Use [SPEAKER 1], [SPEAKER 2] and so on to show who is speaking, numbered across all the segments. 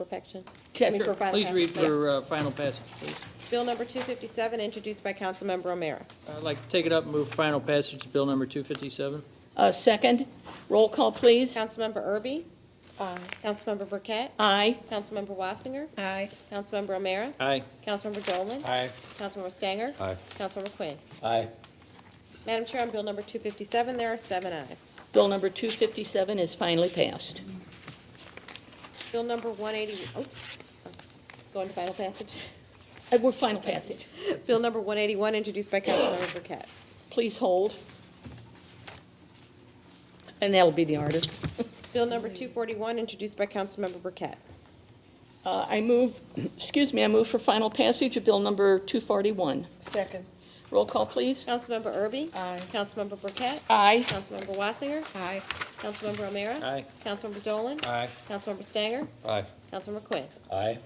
[SPEAKER 1] perfection? I mean, for
[SPEAKER 2] Sure.
[SPEAKER 1] final
[SPEAKER 2] Please read
[SPEAKER 1] passage.
[SPEAKER 2] for uh, final passage, please.
[SPEAKER 3] Bill number 257, introduced by Councilmember O'Meara.
[SPEAKER 2] I'd like to take it up and move final passage to bill number 257.
[SPEAKER 1] Uh, second, roll call, please.
[SPEAKER 3] Councilmember Erby? uh,
[SPEAKER 1] Aye.
[SPEAKER 3] Councilmember Burkett?
[SPEAKER 1] Aye.
[SPEAKER 3] Councilmember Wassinger?
[SPEAKER 1] Aye.
[SPEAKER 3] Councilmember O'Meara?
[SPEAKER 2] Aye.
[SPEAKER 3] Councilmember Dolan?
[SPEAKER 4] Aye.
[SPEAKER 3] Councilmember Stanger?
[SPEAKER 4] Aye.
[SPEAKER 3] Councilmember Quinn?
[SPEAKER 4] Aye.
[SPEAKER 3] Madam Chair, on Bill number 257, there are seven ayes.
[SPEAKER 1] Bill number 257 is finally passed.
[SPEAKER 3] Bill number 180, oops, going to final passage.
[SPEAKER 1] Uh, We're final passage.
[SPEAKER 3] Bill number 181, introduced by Councilmember Burkett.
[SPEAKER 1] Please hold. And that'll be the order.
[SPEAKER 3] Bill number 241, introduced by Councilmember Burkett.
[SPEAKER 1] Uh, I move, excuse me, I move for final passage of bill number 241.
[SPEAKER 5] Second.
[SPEAKER 1] Roll call, please.
[SPEAKER 3] Councilmember Erby?
[SPEAKER 5] Aye.
[SPEAKER 3] Councilmember Burkett?
[SPEAKER 1] Aye.
[SPEAKER 3] Councilmember Wassinger?
[SPEAKER 5] Aye.
[SPEAKER 3] Councilmember O'Meara?
[SPEAKER 2] Aye.
[SPEAKER 3] Councilmember Dolan?
[SPEAKER 4] Aye.
[SPEAKER 3] Councilmember Stanger?
[SPEAKER 4] Aye.
[SPEAKER 3] Councilmember Quinn?
[SPEAKER 4] Aye.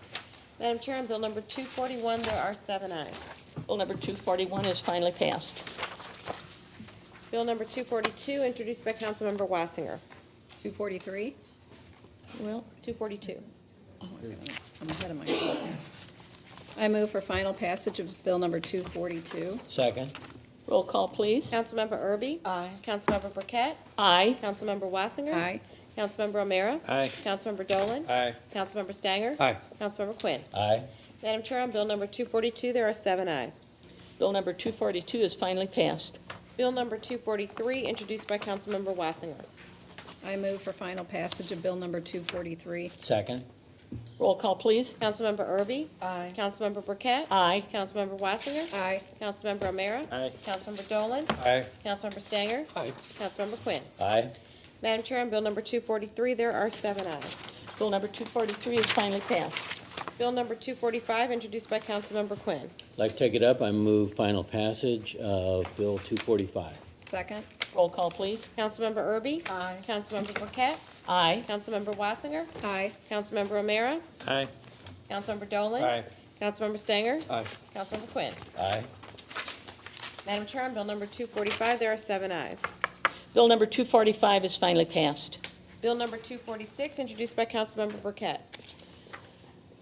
[SPEAKER 3] Madam Chair, on Bill number 241, there are seven ayes.
[SPEAKER 1] Bill number 241 is finally passed.
[SPEAKER 3] Bill number 242, introduced by Councilmember Wassinger.
[SPEAKER 5] 243?
[SPEAKER 1] Well,
[SPEAKER 3] 242.
[SPEAKER 5] I'm ahead of myself here. I move for final passage of bill number 242.
[SPEAKER 4] Second.
[SPEAKER 1] roll call, please.
[SPEAKER 3] Councilmember Erby?
[SPEAKER 5] Aye.
[SPEAKER 3] Councilmember Burkett?
[SPEAKER 1] Aye.
[SPEAKER 3] Councilmember Wassinger?
[SPEAKER 5] Aye.
[SPEAKER 3] Councilmember O'Meara?
[SPEAKER 2] Aye.
[SPEAKER 3] Councilmember Dolan?
[SPEAKER 4] Aye.
[SPEAKER 3] Councilmember Stanger?
[SPEAKER 4] Aye.
[SPEAKER 3] Councilmember Quinn?
[SPEAKER 4] Aye.
[SPEAKER 3] Madam Chair, on Bill number 242, there are seven ayes.
[SPEAKER 1] Bill number 242 is finally passed.
[SPEAKER 3] Bill number 243, introduced by Councilmember Wassinger.
[SPEAKER 5] I move for final passage of bill number 243.
[SPEAKER 4] Second.
[SPEAKER 1] Roll call, please.
[SPEAKER 3] Councilmember Erby?
[SPEAKER 5] Aye.
[SPEAKER 3] Councilmember Burkett?
[SPEAKER 1] Aye.
[SPEAKER 3] Councilmember Wassinger?
[SPEAKER 5] Aye.
[SPEAKER 3] Councilmember O'Meara?
[SPEAKER 2] Aye.
[SPEAKER 3] Councilmember Dolan?
[SPEAKER 4] Aye.
[SPEAKER 3] Councilmember Stanger?
[SPEAKER 4] Aye.
[SPEAKER 3] Councilmember Quinn?
[SPEAKER 4] Aye.
[SPEAKER 3] Madam Chair, on Bill number 243, there are seven ayes.
[SPEAKER 1] Bill number 243 is finally passed.
[SPEAKER 3] Bill number 245, introduced by Councilmember Quinn.
[SPEAKER 6] Like to take it up, I move final passage of Bill 245.
[SPEAKER 5] Second.
[SPEAKER 1] Roll call, please.
[SPEAKER 3] Councilmember Erby?
[SPEAKER 5] Aye.
[SPEAKER 3] Councilmember Burkett?
[SPEAKER 1] Aye.
[SPEAKER 3] Councilmember Wassinger?
[SPEAKER 5] Aye.
[SPEAKER 3] Councilmember O'Meara?
[SPEAKER 2] Aye.
[SPEAKER 3] Councilmember Dolan?
[SPEAKER 4] Aye.
[SPEAKER 3] Councilmember Stanger?
[SPEAKER 4] Aye.
[SPEAKER 3] Councilmember Quinn?
[SPEAKER 4] Aye.
[SPEAKER 3] Madam Chair, on Bill number 245, there are seven ayes.
[SPEAKER 1] Bill number 245 is finally passed.
[SPEAKER 3] Bill number 246, introduced by Councilmember Burkett.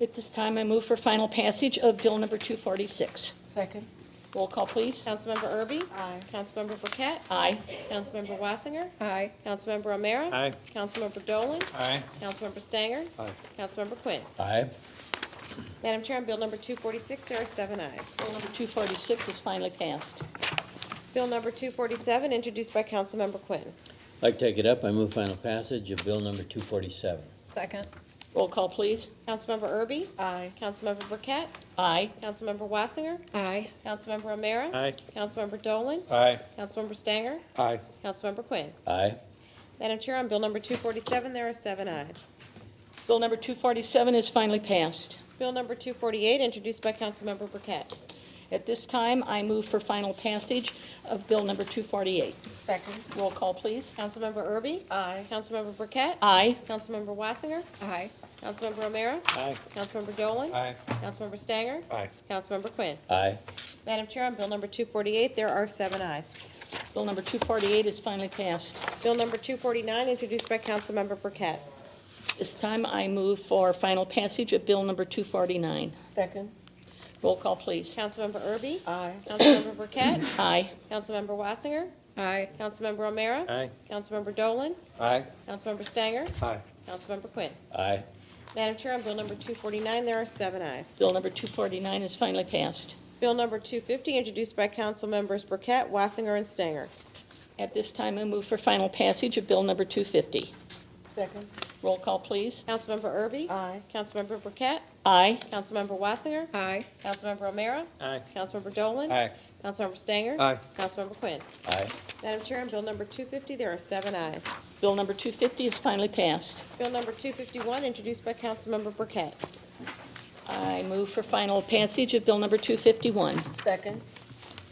[SPEAKER 1] At this time, I move for final passage of Bill number 246.
[SPEAKER 5] Second.
[SPEAKER 1] Roll call, please.
[SPEAKER 3] Councilmember Erby? Aye. Councilmember Burkett?
[SPEAKER 1] Aye.
[SPEAKER 3] Councilmember Wassinger?
[SPEAKER 5] Aye.
[SPEAKER 3] Councilmember O'Meara?
[SPEAKER 2] Aye.
[SPEAKER 3] Councilmember Dolan?
[SPEAKER 4] Aye.
[SPEAKER 3] Councilmember Stanger?
[SPEAKER 4] Aye.
[SPEAKER 3] Councilmember Quinn?
[SPEAKER 4] Aye.
[SPEAKER 3] Madam Chair, on Bill number 246, there are seven ayes.
[SPEAKER 1] Bill number 246 is finally passed.
[SPEAKER 3] Bill number 247, introduced by Councilmember Quinn.
[SPEAKER 6] Like to take it up, I move final passage of Bill number 247.
[SPEAKER 5] Second.
[SPEAKER 1] Roll call, please.
[SPEAKER 3] Councilmember Erby?
[SPEAKER 5] Aye.
[SPEAKER 3] Councilmember Burkett?
[SPEAKER 1] Aye.
[SPEAKER 3] Councilmember Wassinger?
[SPEAKER 5] Aye.
[SPEAKER 3] Councilmember O'Meara?
[SPEAKER 2] Aye.
[SPEAKER 3] Councilmember Dolan?
[SPEAKER 4] Aye.
[SPEAKER 3] Councilmember Stanger?
[SPEAKER 4] Aye.
[SPEAKER 3] Councilmember Quinn?
[SPEAKER 6] Aye.
[SPEAKER 3] Madam Chair, on Bill number 247, there are seven ayes.
[SPEAKER 1] Bill number 247 is finally passed.
[SPEAKER 3] Bill number 248, introduced by Councilmember Burkett.
[SPEAKER 1] At this time, I move for final passage of Bill number 248.
[SPEAKER 3] Second.
[SPEAKER 1] Roll call, please.
[SPEAKER 3] Councilmember Erby? Aye. Councilmember Burkett?
[SPEAKER 1] Aye.
[SPEAKER 3] Councilmember Wassinger?
[SPEAKER 5] Aye.
[SPEAKER 3] Councilmember O'Meara?
[SPEAKER 2] Aye.
[SPEAKER 3] Councilmember Dolan?
[SPEAKER 4] Aye.
[SPEAKER 3] Councilmember Stanger?
[SPEAKER 4] Aye.
[SPEAKER 3] Councilmember Quinn?
[SPEAKER 6] Aye.
[SPEAKER 3] Madam Chair, on Bill number 248, there are seven ayes.
[SPEAKER 1] Bill number 248 is finally passed.
[SPEAKER 3] Bill number 249, introduced by Councilmember Burkett.
[SPEAKER 1] This time, I move for final passage of Bill number 249.
[SPEAKER 5] Second.
[SPEAKER 1] Roll call, please.
[SPEAKER 3] Councilmember Erby?
[SPEAKER 5] Aye.
[SPEAKER 3] Councilmember Burkett?
[SPEAKER 1] Aye.
[SPEAKER 3] Councilmember Wassinger?
[SPEAKER 5] Aye.
[SPEAKER 3] Councilmember O'Meara?
[SPEAKER 2] Aye.
[SPEAKER 3] Councilmember Dolan?
[SPEAKER 4] Aye.
[SPEAKER 3] Councilmember Stanger?
[SPEAKER 4] Aye.
[SPEAKER 3] Councilmember Quinn?
[SPEAKER 6] Aye.
[SPEAKER 3] Madam Chair, on Bill number 249, there are seven ayes.
[SPEAKER 1] Bill number 249 is finally passed.
[SPEAKER 3] Bill number 250, introduced by Councilmembers Burkett, Wassinger, and Stanger.
[SPEAKER 1] At this time, I move for final passage of Bill number 250.
[SPEAKER 5] Second.
[SPEAKER 1] Roll call, please.
[SPEAKER 3] Councilmember Erby?
[SPEAKER 5] Aye.
[SPEAKER 3] Councilmember Burkett?
[SPEAKER 1] Aye.
[SPEAKER 3] Councilmember Wassinger?
[SPEAKER 5] Aye.
[SPEAKER 3] Councilmember O'Meara?
[SPEAKER 2] Aye.
[SPEAKER 3] Councilmember Dolan?
[SPEAKER 4] Aye.
[SPEAKER 3] Councilmember Stanger?
[SPEAKER 4] Aye.
[SPEAKER 3] Councilmember Quinn?
[SPEAKER 6] Aye.
[SPEAKER 3] Madam Chair, on Bill number 250, there are seven ayes.
[SPEAKER 1] Bill number 250 is finally passed.
[SPEAKER 3] Bill number 251, introduced by Councilmember Burkett.
[SPEAKER 1] I move for final passage of Bill number 251.
[SPEAKER 5] Second.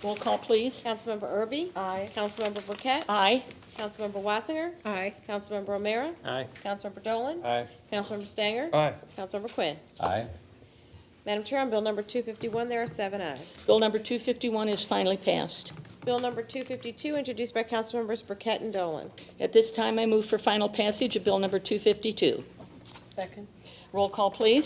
[SPEAKER 1] Roll call, please.
[SPEAKER 3] Councilmember Erby?
[SPEAKER 5] Aye.
[SPEAKER 3] Councilmember Burkett?
[SPEAKER 1] Aye.
[SPEAKER 3] Councilmember Wassinger?
[SPEAKER 5] Aye.
[SPEAKER 3] Councilmember O'Meara?
[SPEAKER 2] Aye.
[SPEAKER 3] Councilmember Dolan?
[SPEAKER 4] Aye.
[SPEAKER 3] Councilmember Stanger?
[SPEAKER 4] Aye.
[SPEAKER 3] Councilmember Quinn?
[SPEAKER 6] Aye.
[SPEAKER 3] Madam Chair, on Bill number 251, there are seven ayes.
[SPEAKER 1] Bill number 251 is finally passed.
[SPEAKER 3] Bill number 252, introduced by Councilmembers Burkett and Dolan.
[SPEAKER 1] At this time, I move for final passage of Bill number 252.
[SPEAKER 5] Second.
[SPEAKER 1] Roll call, please.